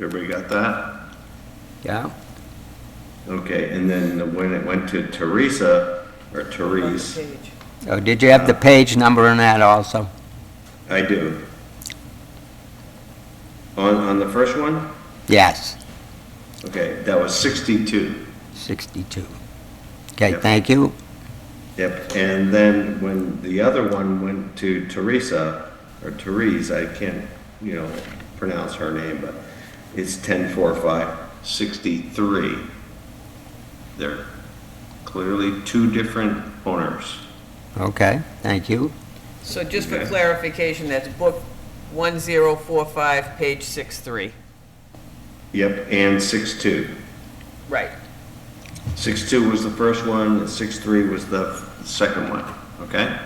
Everybody got that? Yeah, Okay, and then when it went to Teresa, or Therese, Page. oh, did you have the page number on that also? I do. On, on the first one, Yes, okay, that was 62. 62. Okay, Yep. thank you. Yep, and then when the other one went to Teresa, or Therese, I can't, you know, pronounce her name, but it's 1045, 63. They're clearly two different owners. Okay, thank you. So just for Okay. clarification, that's book 1045, page 63. Yep, and 62. Right. 62 was the first one, and 63 was the f- second one, okay?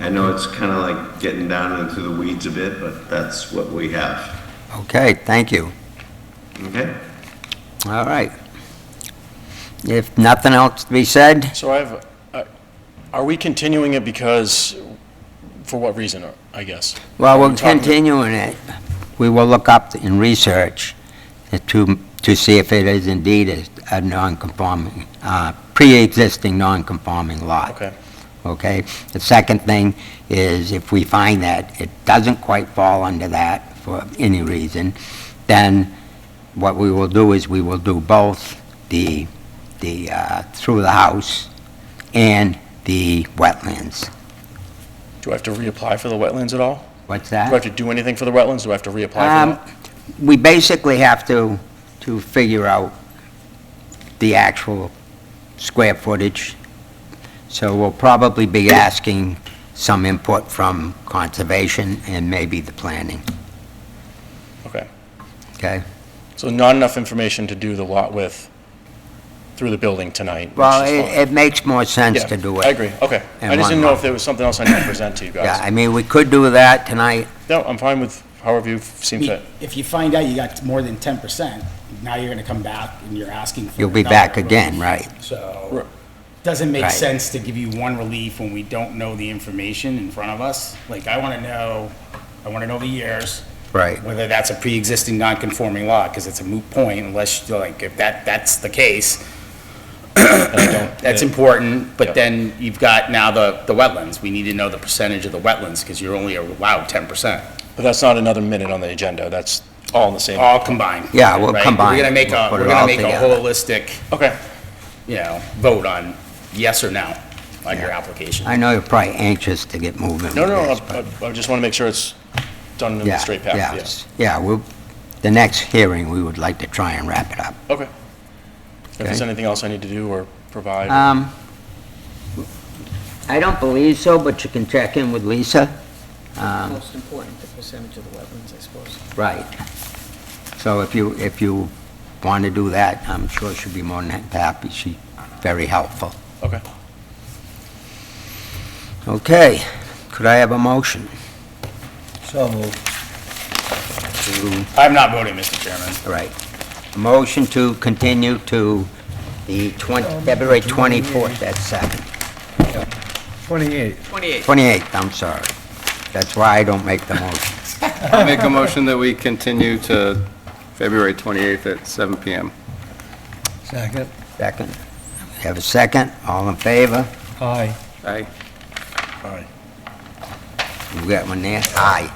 I know it's kind of like getting down into the weeds a bit, but that's what we have, Okay, thank you. okay? All right. If nothing else to be said, So I have, I- are we continuing it because, for what reason, I guess? well, Are we're we talking- continuing it. We will look up and research to, to see if it is indeed a- a non-conforming, uh, pre-existing non-conforming lot. Okay, okay? The second thing is if we find that it doesn't quite fall under that for any reason, then what we will do is we will do both the, the, uh, through the house and the wetlands. do I have to reapply for the wetlands at all? What's Do I that? have to do anything for the wetlands? Do I have to reapply for Um, that? we basically have to, to figure out the actual square footage. So we'll probably be asking some input from conservation and maybe the planning, Okay, okay? so not enough information to do the lot with through the building tonight, which Well, is fine. it, it makes more sense Yeah, to do it. I agree, okay. in I just one didn't know lot. if there was something else I need to present to you Yeah, guys. I mean, we could do that tonight. No, I'm fine with however you seem fit. If you find out you got more than ten percent, now you're gonna come back and you're asking for. You'll be another back relief. again, right? Right. So, doesn't make Right. sense to give you one relief when we don't know the information in front of us. Like, I wanna know, I wanna know the years. Right. Whether that's a pre-existing non-conforming law, because it's a moot point unless, like, if that, that's the case, And I don't- that's yeah. important. Yeah. But then you've got now the, the wetlands. We need to know the percentage of the wetlands, because you're only allowed ten percent. But that's not another minute on the agenda, that's all in the same. Oh. All combined. Yeah, we'll right? combine We're it. gonna make We'll a, put it we're all gonna make a together. holistic, Okay, you know, vote on yes or no on your Yeah. application. I know you're probably anxious to get moving. no, with no, this, I- but- I I just want to make sure it's done in Yeah, the straight path, yeah, yes. Yeah, we'll, the next hearing, we would like to try and wrap it up. Okay. If there's Okay. anything else I need to do or provide, or- Um, I don't believe so, but you can check in with Lisa. Um, Most important, the percentage of the wetlands, I suppose. right. So if you, if you want to do that, I'm sure she'll be more than happy. She's very helpful. okay. Okay, could I have a motion? So moved. I'm not voting, Mr. Chairman. All right. A motion to continue to the 20, February 24th at 7. 28. 28. 28th, I'm sorry. That's why I don't make the motion. I'll make a motion that we continue to February 28th at 7 PM. Second. Second. We Have a second? All in favor? Aye. Aye. You got one there? Aye.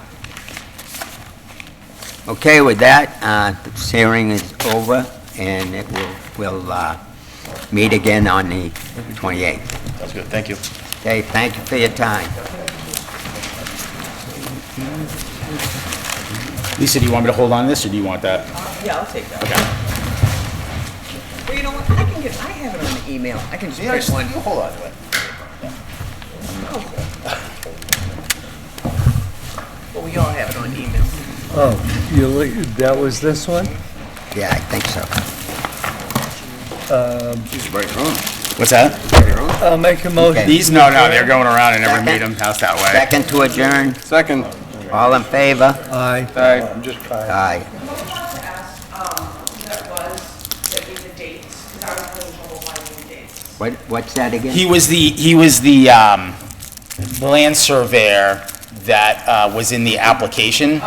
Okay, with that, uh, this hearing is over, and it will, we'll, uh, meet again on the 28th. Sounds good, thank you. Okay, thank you for your time. Lisa, do you want me to hold on to this, or do you want that? Yeah, I'll take that. Okay. Well, you know what, I can get, I have it on the email, I can just print one. Oh. hold on to it. Well, we all have it on email. Oh, you, li- that was this one? Yeah, I think so. What's that? I'll make a motion. Okay. These, no, no, they're going around, I never Second. made them pass that way. Second to adjourn, Second. all in favor? Aye. Aye. Just Aye. What I wanted to ask, um, that was, that was the dates, because I was having trouble finding the dates. What, what's that again? He was the, he was the, um, land surveyor that, uh, was in the application.